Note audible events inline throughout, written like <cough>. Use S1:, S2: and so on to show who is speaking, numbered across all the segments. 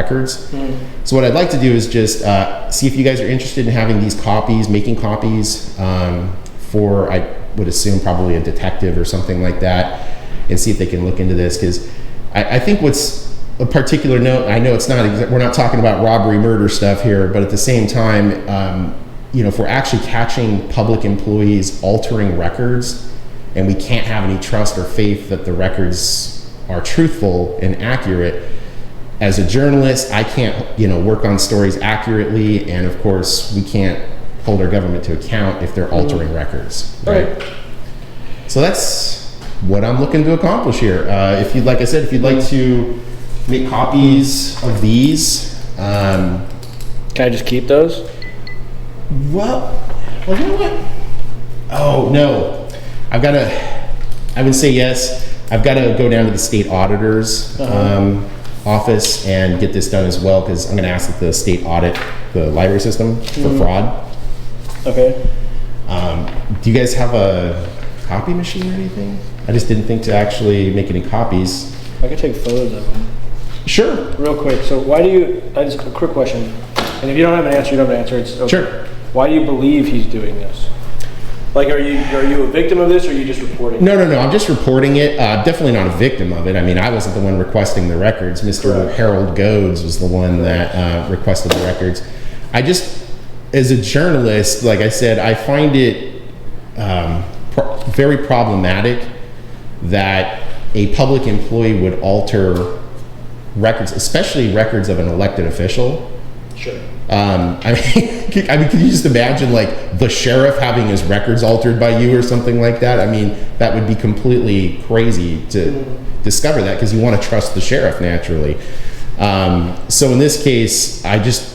S1: records. So what I'd like to do is just uh, see if you guys are interested in having these copies, making copies um, for I would assume probably a detective or something like that, and see if they can look into this because I, I think what's a particular note. I know it's not exa- we're not talking about robbery, murder stuff here, but at the same time, um, you know, if we're actually catching public employees altering records, and we can't have any trust or faith that the records are truthful and accurate as a journalist, I can't, you know, work on stories accurately, and of course, we can't hold our government to account if they're altering records, right? So that's what I'm looking to accomplish here. Uh, if you'd, like I said, if you'd like to make copies of these, um,
S2: Can I just keep those?
S1: well, well, you know what? Oh no, I've got to. I would say yes. I've got to go down to the state auditor's um, office and get this done as well because I'm going to ask that the state audit the library system for fraud.
S2: Okay.
S1: Um, do you guys have a copy machine or anything? I just didn't think to actually make any copies.
S2: I could take photos of them.
S1: Sure.
S2: Real quick, so why do you, I just, a quick question, and if you don't have an answer, you don't have an answer, it's okay.
S1: Sure.
S2: Why do you believe he's doing this? Like, are you, are you a victim of this, or are you just reporting?
S1: No, no, no. I'm just reporting it. Uh, definitely not a victim of it. I mean, I wasn't the one requesting the records. Mr.
S2: Correct.
S1: Harold Goads was the one that uh, requested the records. I just, as a journalist, like I said, I find it um, pro- very problematic that a public employee would alter records, especially records of an elected official.
S2: Sure.
S1: Um, I mean, <laughs> I mean, can you just imagine like the sheriff having his records altered by you or something like that? I mean, that would be completely crazy to discover that because you want to trust the sheriff naturally. Um, so in this case, I just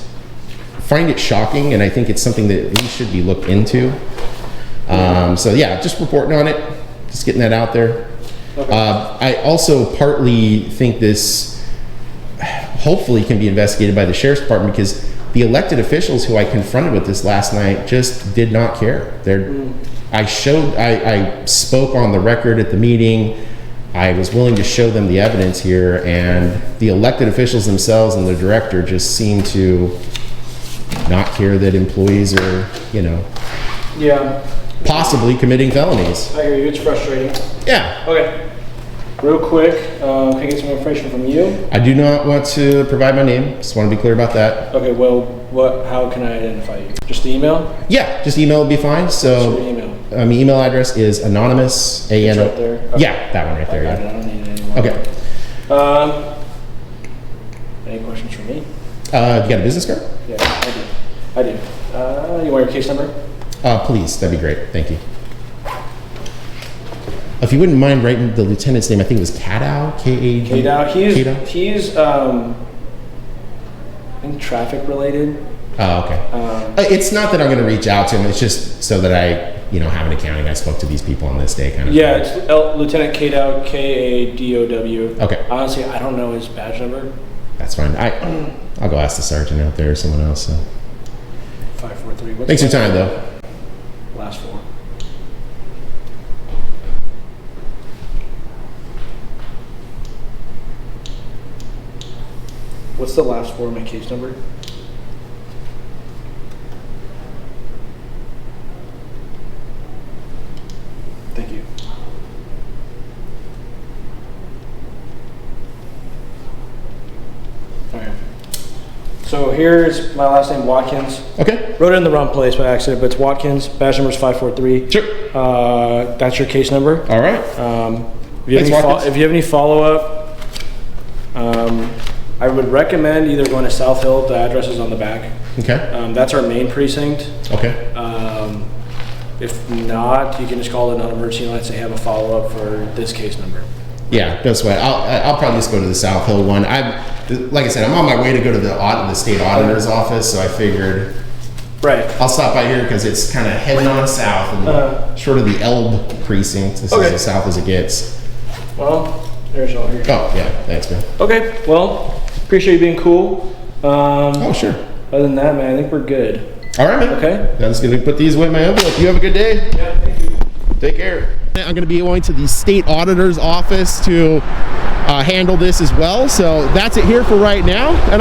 S1: find it shocking, and I think it's something that we should be looked into. Um, so yeah, just reporting on it, just getting that out there. Uh, I also partly think this hopefully can be investigated by the sheriff's department because the elected officials who I confronted with this last night just did not care. They're, I showed, I, I spoke on the record at the meeting. I was willing to show them the evidence here, and the elected officials themselves and the director just seem to not care that employees are, you know,
S2: Yeah,
S1: possibly committing felonies.
S2: I hear you, it's frustrating.
S1: Yeah,
S2: Okay. Real quick, uh, can I get some information from you?
S1: I do not want to provide my name. Just want to be clear about that.
S2: Okay, well, what, how can I identify you? Just the email?
S1: Yeah, just email would be fine.
S2: Just
S1: So.
S2: your email.
S1: Um, email address is anonymous. A N
S2: It's
S1: O-
S2: right there. Okay.
S1: Yeah, that one right there.
S2: I got it,
S1: Yeah.
S2: I don't need it anymore.
S1: Okay.
S2: Um, any questions for me?
S1: Uh, you got a business card?
S2: Yeah, I do. I do. Uh, you want your case number?
S1: Uh, please, that'd be great. Thank you. If you wouldn't mind writing the lieutenant's name, I think it was Kadow. K A D.
S2: Okay, now he's
S1: Kadow?
S2: he's um, in traffic related.
S1: Oh, okay.
S2: Um,
S1: Uh, it's not that I'm going to reach out to him. It's just so that I, you know, have an accounting. I spoke to these people on this day, kind of.
S2: yeah,
S1: thing.
S2: it's L- Lieutenant Kadow, K A D O W.
S1: Okay.
S2: Honestly, I don't know his badge number.
S1: That's fine. I, I'll go ask the sergeant out there or someone else. So.
S2: Five four three. What's
S1: Thanks for
S2: the
S1: your time, though.
S2: Last four. What's the last four of my case number? Thank you. All right. So here's my last name, Watkins.
S1: Okay.
S2: Wrote it in the wrong place by accident, but it's Watkins. Badge number is 543.
S1: Sure.
S2: Uh, that's your case number.
S1: All right.
S2: Um, if, you have
S1: Thanks,
S2: any fol-
S1: Watkins.
S2: if you have any follow up, um, I would recommend either going to South Hill, the address is on the back.
S1: Okay.
S2: Um, that's our main precinct.
S1: Okay.
S2: Um, if not, you can just call the non emergency line and say, have a follow up for this case number.
S1: Yeah, no sweat. I'll I'll probably just go to the South Hill one. I'm like I said, I'm on my way to go to the audit, the state auditor's office, so I figured
S2: Right.
S1: I'll stop by here because it's kind of heading on south and
S2: Uh-huh.
S1: short of the Elb precinct. This
S2: Okay.
S1: is as south as it gets.
S2: Well, there's all your.
S1: Oh yeah, thanks man.
S2: Okay, well, appreciate you being cool. Um,
S1: Oh sure.
S2: Other than that, man, I think we're good.
S1: All right, man.
S2: Okay.
S1: I'm just gonna put these away in my envelope. You have a good day. Yeah, thank you. Take care. I'm gonna be going to the state auditor's office to uh, handle this as well. So that's it here for right now, and.